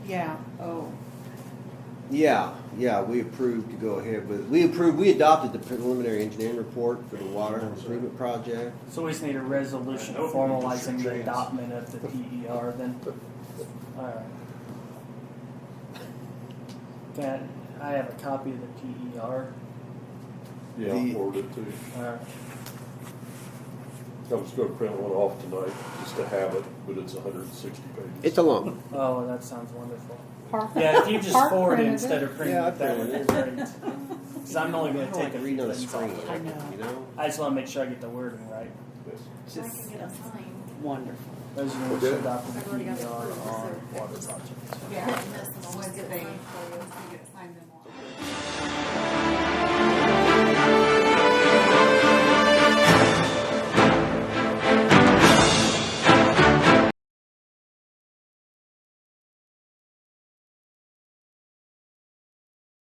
Yeah, oh, Yeah, yeah, we approved to go ahead with, we approved, we adopted the preliminary engineering report for the water improvement project. So we just need a resolution I hope you don't formalizing the shoot your adoption of the PER then. Alright. Can, I have a copy of the E PER. Yeah, The- I ordered it too. Alright, I was gonna print one off tonight, just to have it, but it's hundred and sixty pages. It's a long, oh, that sounds wonderful. Park. Yeah, if you just Park forward it printed it. instead of printing Yeah, I it, that would be printed great. Cause I'm only I gonna don't take like a reading few on the things off. screen, of I it. know. you know? I just wanna make sure I get the wording right. Yes. So I Just can get a sign. wonderful. Those of you who should adopt the I've PER already got the are approvals, E water so- projects. Yeah.